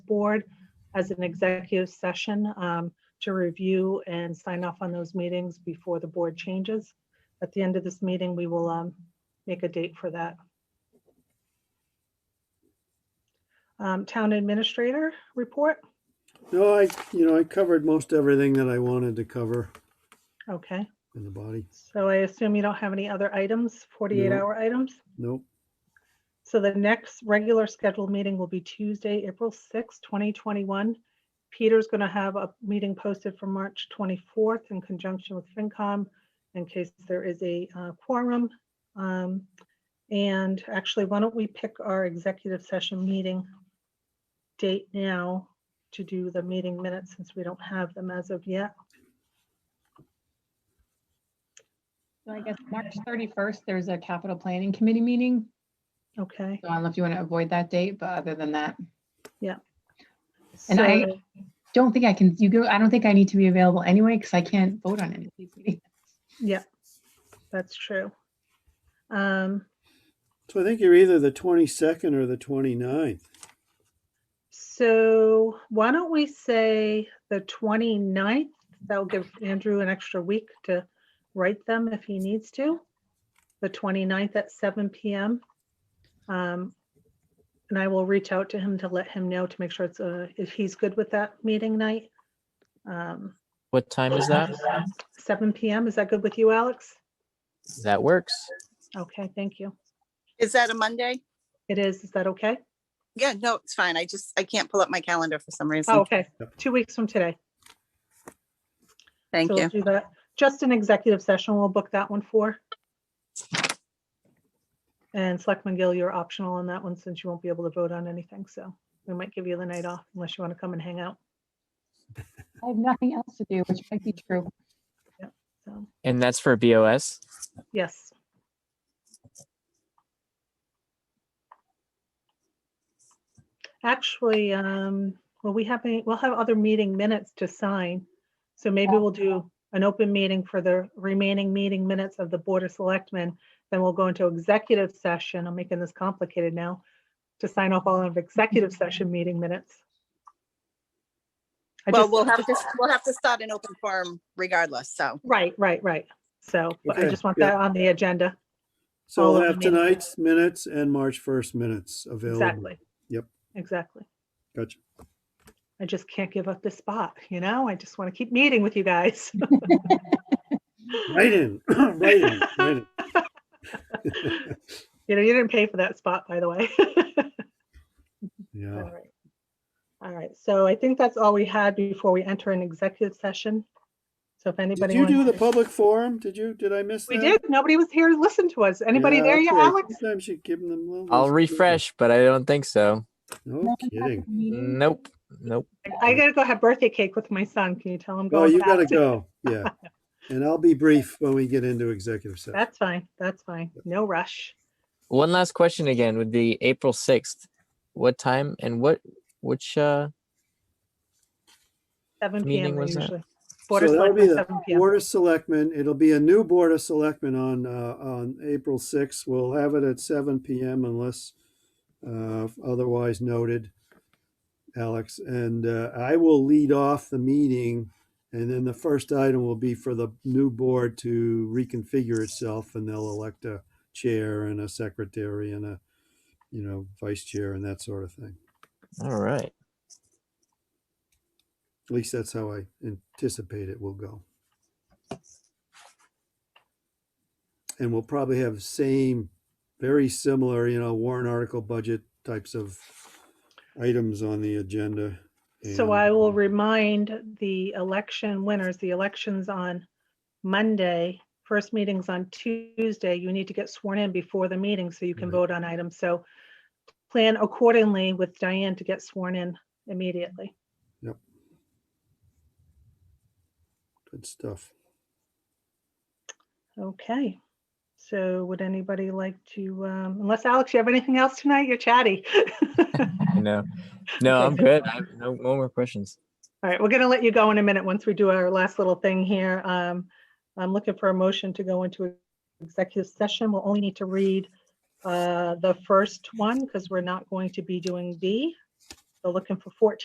board as an executive session um, to review and sign off on those meetings before the board changes. At the end of this meeting, we will um, make a date for that. Um, Town administrator report, No, I, you know, I covered most everything that I wanted to cover okay. in the body. So I assume you don't have any other items, 48 No. hour items? Nope. So the next regular scheduled meeting will be Tuesday, April sixth, twenty twenty-one. Peter's gonna have a meeting posted for March twenty-fourth in conjunction with FinCom in case there is a uh, quorum. Um, And actually, why don't we pick our executive session meeting date now to do the meeting minutes since we don't have them as of yet? So I guess March thirty-first, there's a capital planning committee meeting. Okay. So I don't know if you want to avoid that date, but other than that, And so- I- don't think I can, you go, I don't think I need to be available anyway because I can't vote on any of these meetings. Yeah, that's true. Um, So I think you're either the 22nd or the 29th. So why don't we say the 29th? That'll give Andrew an extra week to write them if he needs to. The 29th at 7 PM. Um, And I will reach out to him to let him know to make sure it's, uh, if he's good with that meeting night. Um, What time is that? 7 PM, is that good with you, Alex? That works. Okay, thank you. Is that a Monday? It is, is that okay? Yeah, no, it's fine. I just, I can't pull up my calendar for some Oh, reason. okay, two weeks from today. Thank So we'll you. Do that, just an executive session, we'll book that one for. And Selectman Gill, you're optional on that one since you won't be able to vote on anything, so we might give you the night off unless you want to come and hang out, I have nothing else to do, which might be true. so, And that's for BOS. yes. Actually, um, well, we have, a- we'll have other meeting minutes to sign, so maybe we'll do an open meeting for the remaining meeting minutes of the Board of Selectmen. Then we'll go into executive session. I'm making this complicated now to sign off all of executive session meeting minutes. I Well, just- we'll have to, we'll have to start an open forum regardless, so. Right, right, right. So but I Okay, just want yeah. that on the agenda. So All of we'll have the meetings. tonight's minutes and March 1st minutes available. Exactly. Yep. Exactly. Gotcha. I just can't give up this spot, you know? I just want to keep meeting with you guys. Right in, right in, right in. You know, you didn't pay for that spot, by the way. Yeah. All right. All right, so I think that's all we had before we enter an executive session. So if Did anybody. you do wants the to- public forum? Did you, did I miss that? We did. Nobody was here to listen to us. Anybody Yeah, there yet, okay. Alex? Sometimes you give them a little. I'll refresh, but I don't think so. No kidding. Meeting. Nope. Nope. I gotta go have birthday cake with my son. Can you tell him? Oh, going you gotta back? go. Yeah. And I'll be brief when we get into executive session. That's fine. That's fine. No rush. One last question again would be April 6th. What time and what, which, uh, Seven PM Meeting they was at- usually. Board of So that'll be Selectmen, the 7 PM. Board of Selectmen, it'll be a new Board of Selectmen on, uh, on April sixth. We'll have it at seven PM unless, uh, otherwise noted, Alex. And, uh, I will lead off the meeting and then the first item will be for the new board to reconfigure itself and they'll elect a chair and a secretary and a, you know, vice chair and that sort of thing. all right. At least that's how I anticipate it will go. And we'll probably have same, very similar, you know, warrant article budget types of items on the agenda. So I and- will remind the election winners, the election's on Monday, first meeting's on Tuesday. You need to get sworn in before the meeting so you can Mm-hmm. Right. vote on items. So plan accordingly with Diane to get sworn in immediately. Good stuff. Okay. So would anybody like to, um, unless Alex, you have anything else tonight? You're chatty. No, Okay, no, I'm good. I no, no more questions. All right, we're gonna let you go in a minute once we do our last little thing here. Um, I'm looking for a motion to go into executive session. We'll only need to read uh, the first one because we're not going to be doing B. So looking for 14.